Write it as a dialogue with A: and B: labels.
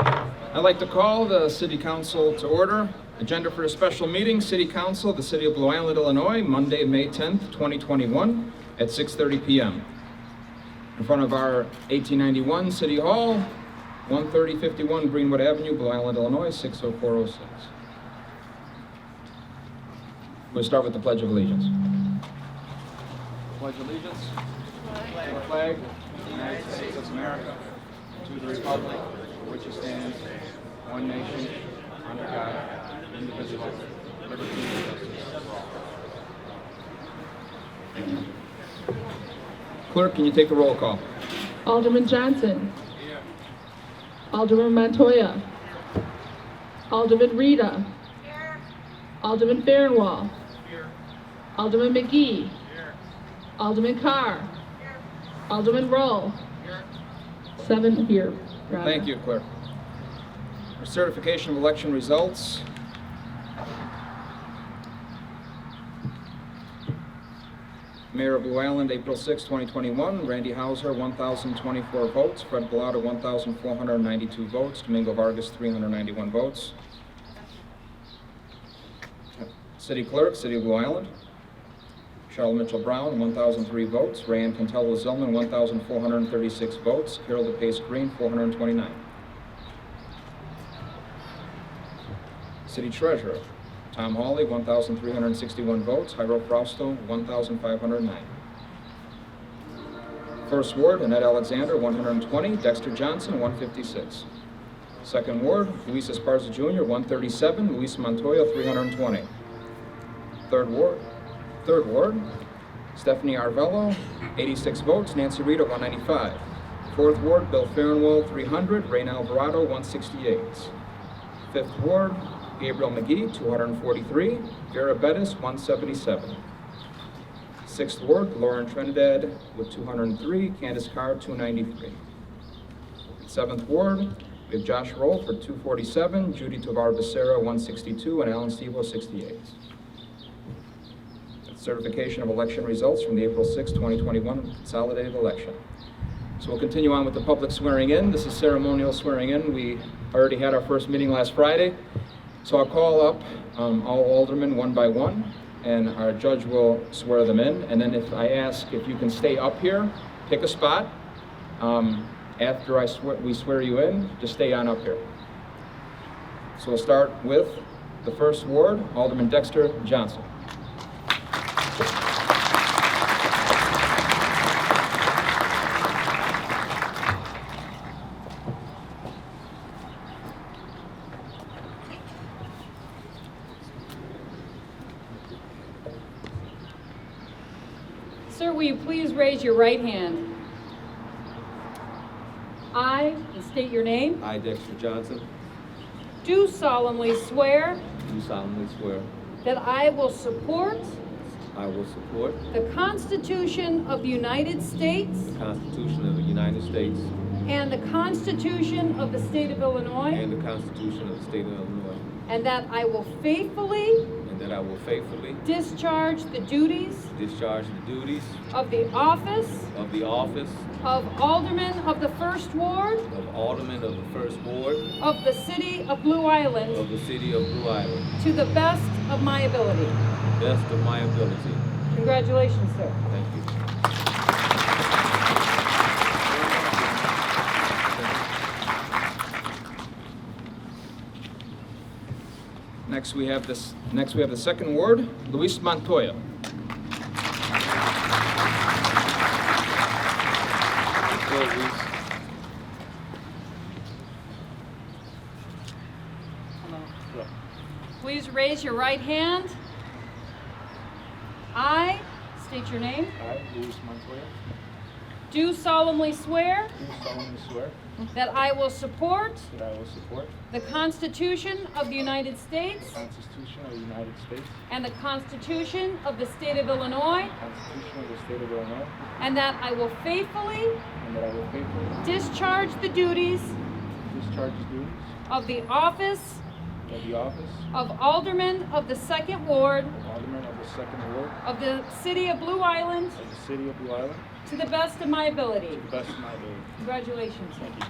A: I'd like to call the city council to order. Agenda for a special meeting, city council, of the city of Blue Island, Illinois, Monday, May 10th, 2021, at 6:30 PM. In front of our 1891 City Hall, 13051 Greenwood Avenue, Blue Island, Illinois, 60406. We'll start with the Pledge of Allegiance. Pledge allegiance to the flag of the United States of America, to the republic for which it stands, one nation, under God, indivisible, liberty and justice for all. Clerk, can you take the roll call?
B: Alderman Johnson. Alderman Montoya. Alderman Rita. Alderman Fairwell. Alderman McGee. Alderman Carr. Alderman Roll. Seven here. Your Honor.
A: Thank you, clerk. Certification of election results. Mayor of Blue Island, April 6, 2021, Randy Hauser, 1,024 votes, Fred Bellotta, 1,492 votes, Domingo Vargas, 391 votes. City Clerk, City of Blue Island. Charlotte Mitchell Brown, 1,003 votes. Rayanne Contello Zellman, 1,436 votes. Carol DePace Green, 429. City Treasurer, Tom Hawley, 1,361 votes. Jairo Fausto, 1,509. First Ward, Annette Alexander, 120. Dexter Johnson, 156. Second Ward, Luis Esparza Jr., 137. Luis Montoya, 320. Third Ward, Third Ward, Stephanie Arvello, 86 votes, Nancy Reed, 195. Fourth Ward, Bill Farnwell, 300, Rain Alvarado, 168. Fifth Ward, Gabriel McGee, 243, Vera Bettis, 177. Sixth Ward, Lauren Trinidad with 203, Candace Carr, 293. Seventh Ward, we have Josh Roll for 247, Judy Tovar Becerra, 162, and Alan Stevo, 68. Certification of election results from the April 6, 2021 consolidated election. So we'll continue on with the public swearing in. This is ceremonial swearing in. We already had our first meeting last Friday. So I'll call up um, all aldermen one by one, and our judge will swear them in. And then if I ask if you can stay up here, pick a spot. Um, After I swear, we swear you in, just stay on up here. So we'll start with the first ward, Alderman Dexter Johnson.
C: Sir, will you please raise your right hand? I, and state your name,
D: I, Dexter Johnson,
C: do solemnly swear
D: do solemnly swear
C: that I will support
D: I will support
C: the Constitution of the United States
D: the Constitution of the United States
C: and the Constitution of the State of Illinois,
D: and the Constitution of the State of Illinois,
C: and that I will faithfully
D: and that I will faithfully
C: discharge the duties
D: discharge the duties
C: of the office
D: of the office
C: of Alderman of the First Ward
D: of Alderman of the First Ward
C: of the City of Blue Island
D: of the City of Blue Island,
C: to the best of my ability.
D: best of my ability.
C: Congratulations, sir.
D: Thank you.
A: Next, we have this, next we have the second ward, Luis Montoya.
D: Go, Reese.
C: Please raise your right hand. I, state your name,
E: I, Luis Montoya,
C: do solemnly swear
E: do solemnly swear
C: that I will support
E: that I will support
C: the Constitution of the United States
E: the Constitution of the United States,
C: and the Constitution of the State of Illinois,
E: the Constitution of the State of Illinois,
C: and that I will faithfully
E: and that I will faithfully
C: discharge the duties
E: discharge the duties
C: of the office
E: of the office
C: of Alderman of the Second Ward
E: of Alderman of the Second Ward
C: of the City of Blue Island
E: of the City of Blue Island
C: to the best of my ability.
E: to the best of my ability.
C: Congratulations, sir.